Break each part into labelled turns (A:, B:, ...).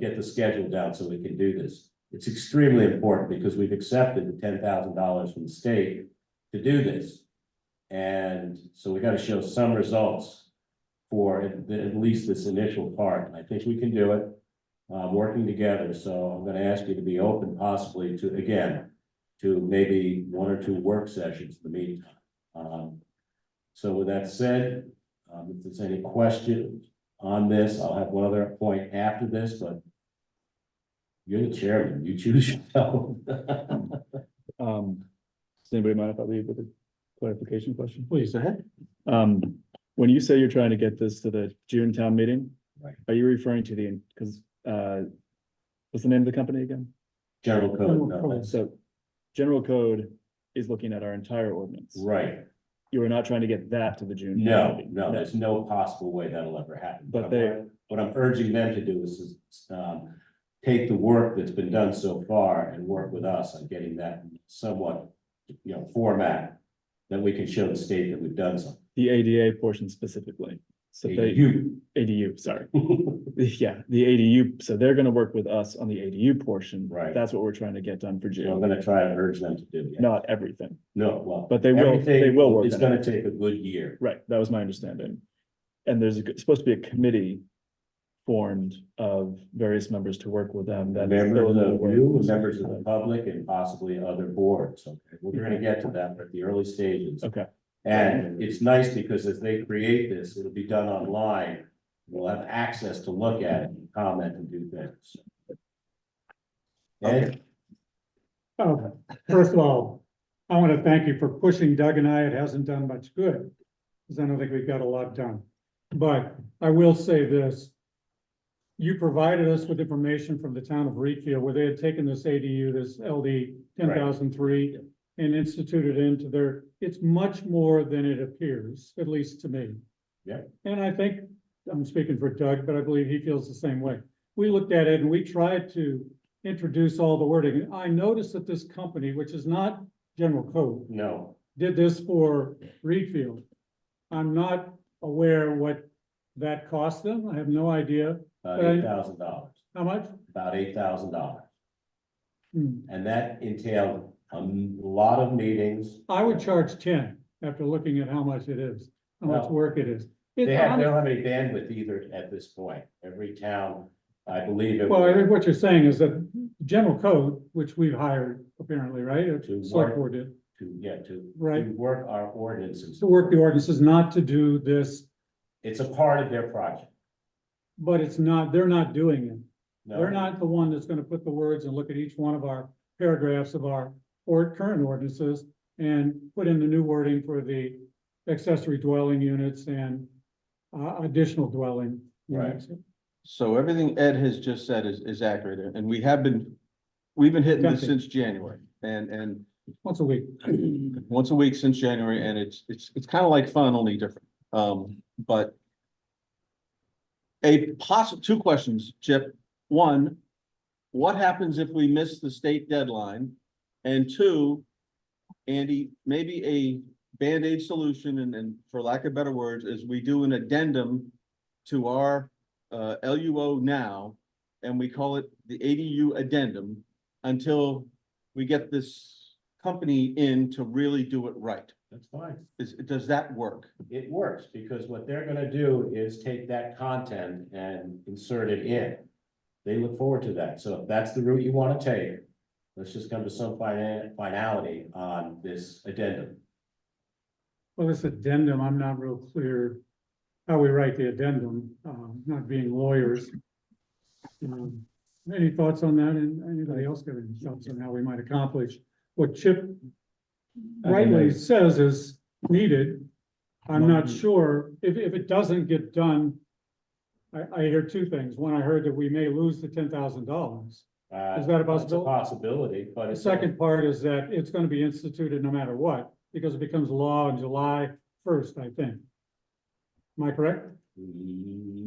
A: get the schedule down so we can do this. It's extremely important because we've accepted the ten thousand dollars from the state to do this. And so we gotta show some results for at, at least this initial part. And I think we can do it. Uh, working together, so I'm gonna ask you to be open possibly to, again, to maybe one or two work sessions in the meantime. Um, so with that said, um, if there's any questions on this, I'll have one other point after this, but you're the chairman, you choose yourself.
B: Um, does anybody mind if I leave with a clarification question?
C: Please, ahead.
B: Um, when you say you're trying to get this to the June town meeting.
A: Right.
B: Are you referring to the, because, uh, what's the name of the company again?
A: General code,
C: General
A: no,
C: code.
B: So general code is looking at our entire ordinance.
A: right,
B: You are not trying to get that to the June. town
A: no,
B: meeting.
A: no, there's no possible way that'll ever happen.
B: But they-
A: What I'm urging them to do is, is, um, take the work that's been done so far and work with us on getting that somewhat, you know, format that we can show the state that we've done something.
B: The ADA portion specifically. So they,
A: You.
B: ADU, sorry. Yeah, the ADU, so they're gonna work with us on the ADU portion.
A: Right.
B: That's what we're trying to get done for
A: So I'm
B: June,
A: gonna try to urge them to do it.
B: not everything.
A: No, well.
B: But they will- they
A: everything
B: will work
A: It's
B: on
A: gonna
B: it.
A: take a good year.
B: Right, that was my understanding. And there's a g- supposed to be a committee formed of various members to work with them. that's still in
A: Members
B: the
A: of
B: works.
A: you, members
B: uh,
A: of the public and possibly other boards. Okay, we're gonna get to that at the early stages.
B: Okay,
A: And it's nice because as they create this, it'll be done online. We'll have access to look at it and comment and do things. And
C: Okay, first of all, I want to thank you for pushing Doug and I. It hasn't done much good. Because I don't think we've got a lot done. But I will say this. You provided us with information from the town of Reedfield where they had taken this ADU, this LD ten thousand three. And instituted into their, it's much more than it appears, at least to me.
A: Yeah.
C: And I think, I'm speaking for Doug, but I believe he feels the same way. We looked at it and we tried to introduce all the wording. And I noticed that this company, which is not general code,
A: no,
C: did this for Reedfield. I'm not aware what that cost them. I have no idea
A: about
C: Right.
A: eight thousand dollars,
C: how much.
A: about eight thousand dollars.
C: Hmm.
A: And that entailed a lot of meetings.
C: I would charge ten after looking at how much it is, how much
A: Well,
C: work it is. It-
A: They have, they don't have any bandwidth either at this point. Every town, I believe. it
C: Well, I
A: was
C: think what you're saying is that general code, which we've hired apparently, right? Or
A: To
C: Select
A: work.
C: board did,
A: To, yeah, to.
C: Right.
A: to Work our ordinances.
C: to work the ordinances, not to do this,
A: It's a part of their project.
C: but it's not, they're not doing it.
A: No,
C: They're not the one that's gonna put the words and look at each one of our paragraphs of our or current ordinances and put in the new wording for the accessory dwelling units and uh, additional dwelling.
A: Right.
C: units.
D: So everything Ed has just said is, is accurate, and- and we have been, we've been hitting this
C: Gotcha.
D: since January, and, and
C: Once a week.
D: once a week since January, and it's, it's, it's kind of like fun, only different, um, but a possible, two questions, Chip. One, what happens if we miss the state deadline? And two, Andy, maybe a Band-Aid solution, and, and for lack of better words, is we do an addendum to our, uh, LUO now, and we call it the ADU addendum until we get this company in to really do it right.
A: That's fine.
D: Is, does that work?
A: It works because what they're gonna do is take that content and insert it in. They look forward to that. So if that's the route you wanna take, let's just come to some fina- finality on this addendum.
C: Well, this addendum, I'm not real clear how we write the addendum, um, not being lawyers. Um, Any thoughts on that? And anybody else got any thoughts on how we might accomplish what Chip rightly says is needed? I'm not sure. If, if it doesn't get done, I, I hear two things. One, I heard that we may lose the ten thousand dollars.
A: Uh,
C: Is that a
A: it's
C: possibility?
A: Possibility, but.
C: The
A: it's-
C: second part is that it's gonna be instituted no matter what, because it becomes law on July first, I think. Am I correct?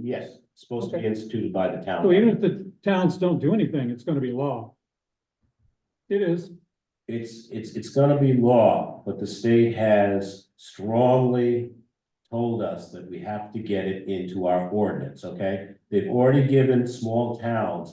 A: Yes, it's supposed to be
C: Okay.
A: instituted by the town.
C: So even if the towns don't do anything, it's gonna be law. It is,
A: It's, it's, it's gonna be law, but the state has strongly told us that we have to get it into our ordinance, okay? They've already given small towns